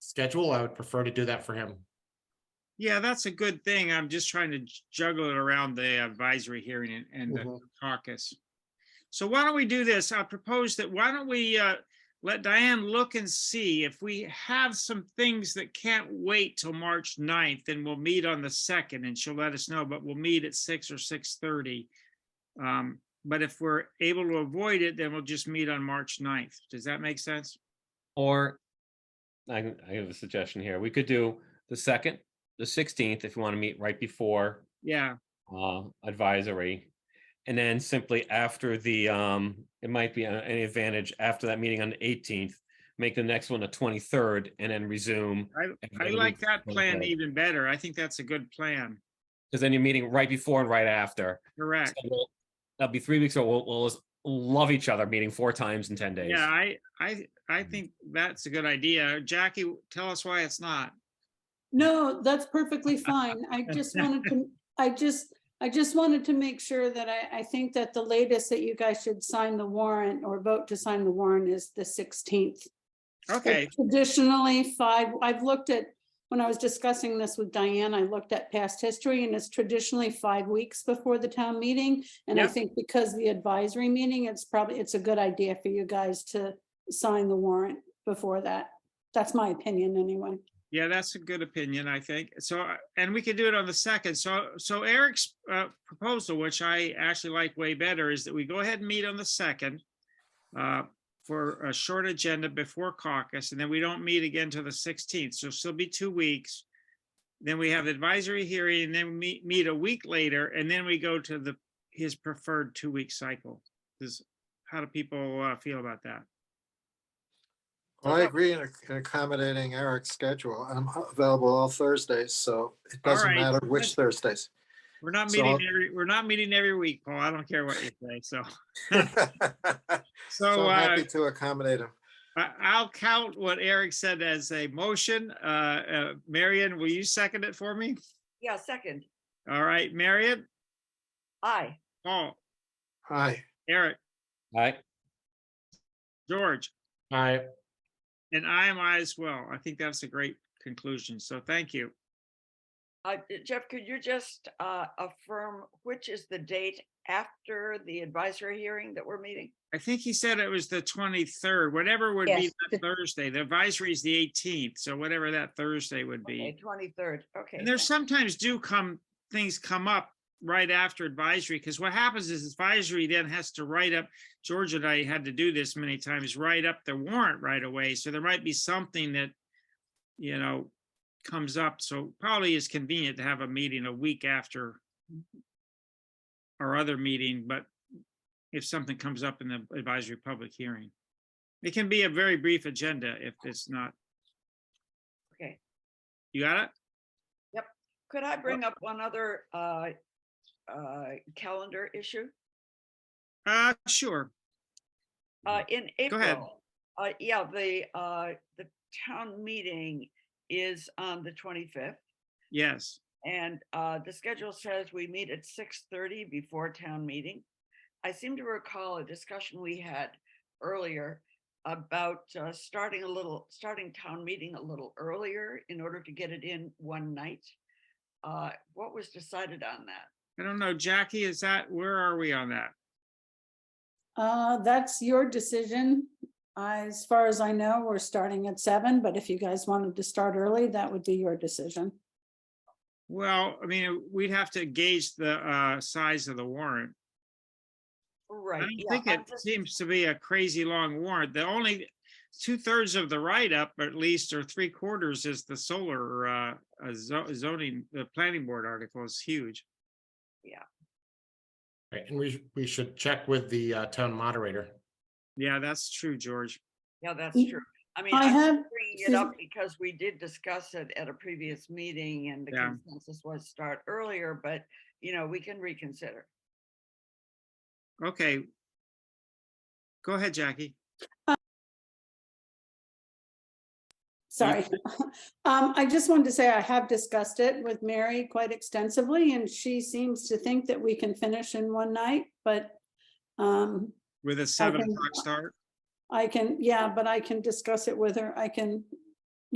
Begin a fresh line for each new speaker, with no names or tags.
schedule, I would prefer to do that for him.
Yeah, that's a good thing. I'm just trying to j- juggle it around the advisory hearing and- and the
Mhm.
caucus. So why don't we do this? I propose that why don't we uh, let Diane look and see if we have some things that can't wait till March 9th, then we'll meet on the second and she'll let us know, but we'll meet at six or six thirty. Um, But if we're able to avoid it, then we'll just meet on March 9th. Does that make sense?
Or I, can- I have a suggestion here. We could do the second, the sixteenth, if you want to meet right before
Yeah,
uh, advisory. And then simply after the, um, it might be a- an advantage after that meeting on the eighteenth, make the next one the twenty-third and then resume.
I like that plan e- even better. I think that's a good plan.
Because then you're meeting right before and right after.
Correct.
So we'll- That'll be three weeks, or we'll, we'll just love each other, meeting four times in ten days.
Yeah, I, I, I think that's a good idea. Jackie, tell us why it's not.
No, that's perfectly fine. I just wanted to, I just, I just wanted to make sure that I, I think that the latest that you guys should sign the warrant or vote to sign the warrant is the sixteenth.
Okay,
Traditionally, five, I've looked at, when I was discussing this with Diane, I looked at past history and it's traditionally five weeks before the town meeting. And I
Yep.
think because the advisory meeting, it's probably, it's a good idea for you guys to sign the warrant before that. That's my opinion anyway.
yeah, that's a good opinion, I think. So, uh, and we could do it on the second. So, so Eric's uh, proposal, which I actually like way better, is that we go ahead and meet on the second uh, for a short agenda before caucus, and then we don't meet again till the sixteenth. So still be two weeks. Then we have advisory hearing, and then we meet, meet a week later, and then we go to the, his preferred two-week cycle. Does, how do people uh, feel about that?
I agree in ac- in accommodating Eric's schedule. I'm available all Thursdays, so it doesn't
right.
matter which Thursdays.
We're not
So
meeting
I'll-
every, we're not meeting every week, Paul. I don't care what you say, so.
So
So
I'm
uh,
happy to accommodate him.
I, I'll count what Eric said as a motion. Uh, uh, Marion, will you second it for me?
Yeah, second.
All right, Marion,
Aye.
Paul,
Hi,
Eric,
Right?
George,
All right,
and I am I as well. I think that's a great conclusion. So thank you.
Uh, Jeff, could you just uh, affirm which is the date after the advisory hearing that we're meeting?
I think he said it was the twenty-third, whatever would be
Yes,
that Thursday. The advisory is the eighteenth, so whatever that Thursday would be.
Okay, twenty-third, okay.
And there's
thanks.
sometimes do come, things come up right after advisory, because what happens is advisory then has to write up, George and I had to do this many times, write up the warrant right away, so there might be something that, you know, comes up, so probably is convenient to have a meeting a week after our other meeting, but if something comes up in the advisory public hearing. It can be a very brief agenda if it's not,
Okay,
you got it?
could I bring up one other uh, uh, calendar issue?
Uh, sure.
Uh, in
Mm, ahead.
April, uh, yeah, the, uh, the town meeting is on the twenty-fifth.
Yes.
And uh, the schedule says we meet at six thirty before town meeting. I seem to recall a discussion we had earlier about uh, starting a little, starting town meeting a little earlier in order to get it in one night. Uh, What was decided on that?
I don't know, Jackie, is that, where are we on that?
Uh, that's your decision. As far as I know, we're starting at seven, but if you guys wanted to start early, that would be your decision.
Well, I mean, we'd have to gauge the uh size of the warrant. I
Right.
don't
yeah,
think
I'm
it
just-
seems to be a crazy long warrant. The only two thirds of the write-up, at least, or three quarters is the solar uh uh, zo- zoning, the planning board article is huge.
Right, and we, sh- we should check with the uh, town moderator.
Yeah, that's true, George.
Yeah, that's
Mm,
true. I mean,
I
I'm
have,
bringing it
excuse
up
me.
because we did discuss it at a previous meeting and the
Yeah.
consensus was start earlier, but, you know, we can reconsider.
Okay. Go ahead, Jackie.
sorry. Um, I just wanted to say I have discussed it with Mary quite extensively and she seems to think that we can finish in one night, but um,
With a seven
think-
o'clock start.
I can, yeah, but I can discuss it with her. I can